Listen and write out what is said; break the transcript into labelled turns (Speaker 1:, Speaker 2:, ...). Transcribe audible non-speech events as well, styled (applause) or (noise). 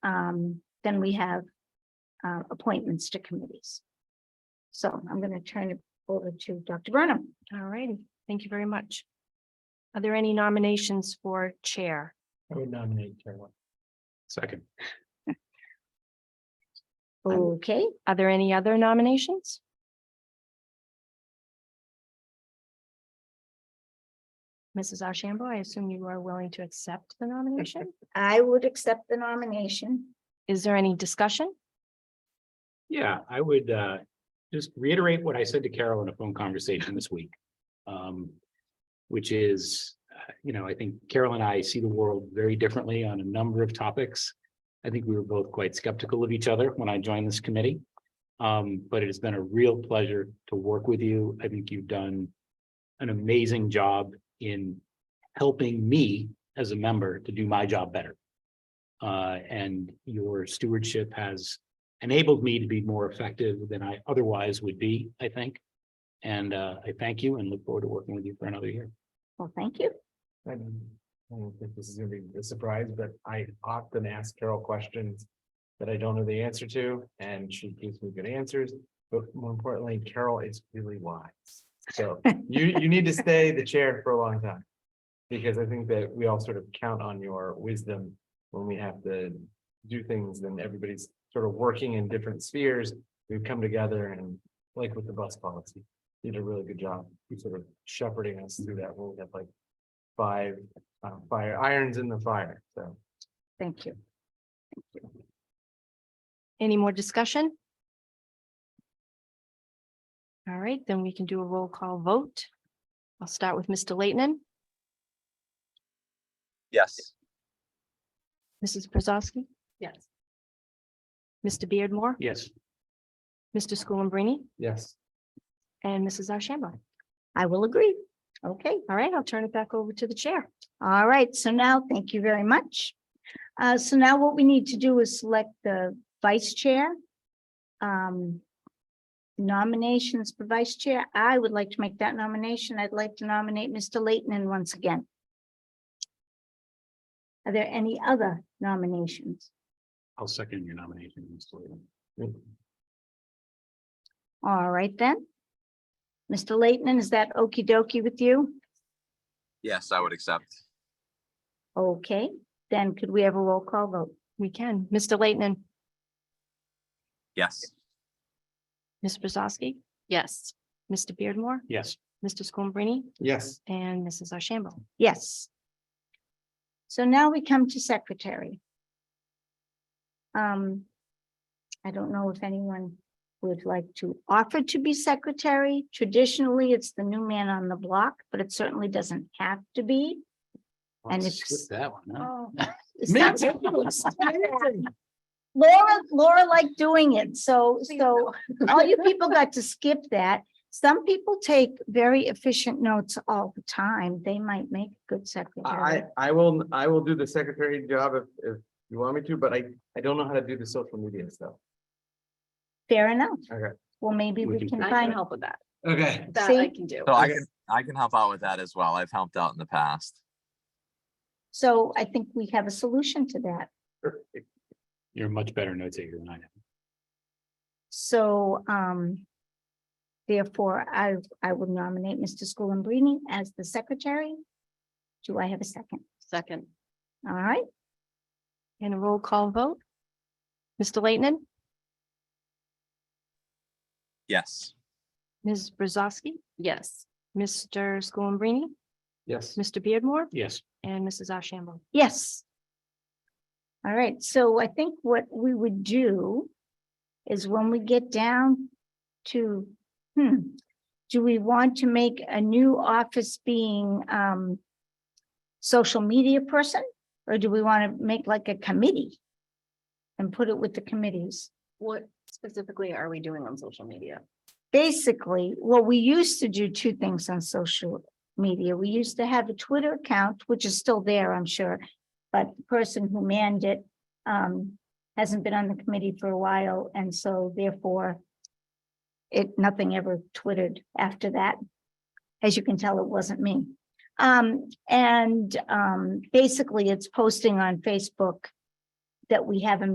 Speaker 1: um, then we have uh, appointments to committees. So I'm going to turn it over to Dr. Burnham.
Speaker 2: All righty, thank you very much. Are there any nominations for Chair?
Speaker 3: I would nominate Carolyn. Second.
Speaker 1: Okay,
Speaker 2: Are there any other nominations? Mrs. Ashambo, I assume you are willing to accept the nomination?
Speaker 1: I would accept the nomination.
Speaker 2: Is there any discussion?
Speaker 3: Yeah, I would uh just reiterate what I said to Carol in a phone conversation this week. Um, which is, uh, you know, I think Carol and I see the world very differently on a number of topics. I think we were both quite skeptical of each other when I joined this committee. Um, but it has been a real pleasure to work with you. I think you've done an amazing job in helping me as a member to do my job better. Uh, and your stewardship has enabled me to be more effective than I otherwise would be, I think. And uh, I thank you and look forward to working with you for another year.
Speaker 1: Well, thank you.
Speaker 4: I don't I don't think this is gonna be a surprise, but I often ask Carol questions that I don't know the answer to, and she gives me good answers. But more importantly, Carol is really wise. So you, you need to stay the chair for a long time. Because I think that we all sort of count on your wisdom when we have to do things, and everybody's sort of working in different spheres. We've come together and like with the bus policy, you did a really good job, you sort of shepherding us through that. We'll have like five uh, fire irons in the fire. So
Speaker 1: Thank you.
Speaker 2: Any more discussion? All right, then we can do a roll call vote. I'll start with Mr. Leighton,
Speaker 5: Yes.
Speaker 2: Mrs. Brzezowski,
Speaker 1: Yes.
Speaker 2: Mr. Beardmore,
Speaker 3: Yes,
Speaker 2: Mr. Schoenbrini,
Speaker 4: yes,
Speaker 2: and Mrs. Ashambo.
Speaker 1: I will agree. Okay.
Speaker 2: All right, I'll turn it back over to the chair.
Speaker 1: All right, so now, thank you very much. Uh, so now what we need to do is select the vice chair. Um, nominations for vice chair. I would like to make that nomination. I'd like to nominate Mr. Leighton once again. Are there any other nominations?
Speaker 3: I'll second your nomination. Mr. Leyland.
Speaker 1: All right then. Mr. Leighton, is that okey dokey with you?
Speaker 5: Yes, I would accept.
Speaker 1: Okay, then could we have a roll call vote?
Speaker 2: We can. Mr. Leighton,
Speaker 5: Yes.
Speaker 2: Ms. Brzezowski? Yes. Mr. Beardmore,
Speaker 3: Yes,
Speaker 2: Mr. Schoenbrini,
Speaker 4: yes.
Speaker 2: and Mrs. Ashambo.
Speaker 1: Yes. So now we come to secretary. Um, I don't know if anyone would like to offer to be secretary. Traditionally, it's the new man on the block, but it certainly doesn't have to be.
Speaker 3: I'll
Speaker 1: And
Speaker 3: skip
Speaker 1: it's- Oh.
Speaker 3: That one, huh?
Speaker 1: It's
Speaker 3: Oh. (laughs) Me
Speaker 1: not-
Speaker 3: too.
Speaker 1: Laura, Laura liked doing it, so, so (laughs) all you people got to skip that. Some people take very efficient notes all the time. They might make good
Speaker 4: I
Speaker 1: secretary.
Speaker 4: I will, I will do the secretary job if if you want me to, but I I don't know how to do the social media stuff.
Speaker 1: Fair enough.
Speaker 4: Okay.
Speaker 1: Well, maybe
Speaker 3: We
Speaker 1: we
Speaker 3: can
Speaker 1: can
Speaker 6: I can
Speaker 1: find,
Speaker 6: help with that.
Speaker 4: Okay.
Speaker 6: That I
Speaker 1: See?
Speaker 6: can do.
Speaker 5: So I
Speaker 4: Okay.
Speaker 5: can, I can help out with that as well. I've helped out in the past.
Speaker 1: so I think we have a solution to that.
Speaker 3: You're a much better note taker than I am.
Speaker 1: So, um, therefore, I, I would nominate Mr. Schoenbrini as the secretary. Do I have a second?
Speaker 6: Second,
Speaker 1: All right,
Speaker 2: And a roll call vote. Mr. Leighton,
Speaker 5: Yes.
Speaker 2: Ms. Brzezowski,
Speaker 6: yes.
Speaker 2: Mr. Schoenbrini,
Speaker 4: Yes.
Speaker 2: Mr. Beardmore,
Speaker 3: Yes,
Speaker 2: and Mrs. Ashambo.
Speaker 1: yes. All right, so I think what we would do is when we get down to, hmm, do we want to make a new office being, um, social media person? Or do we want to make like a committee and put it with the committees?
Speaker 6: What specifically are we doing on social media?
Speaker 1: basically, well, we used to do two things on social media. We used to have a Twitter account, which is still there, I'm sure. But the person who manned it um hasn't been on the committee for a while, and so therefore it, nothing ever twittered after that. As you can tell, it wasn't me. Um, and um basically, it's posting on Facebook that we have a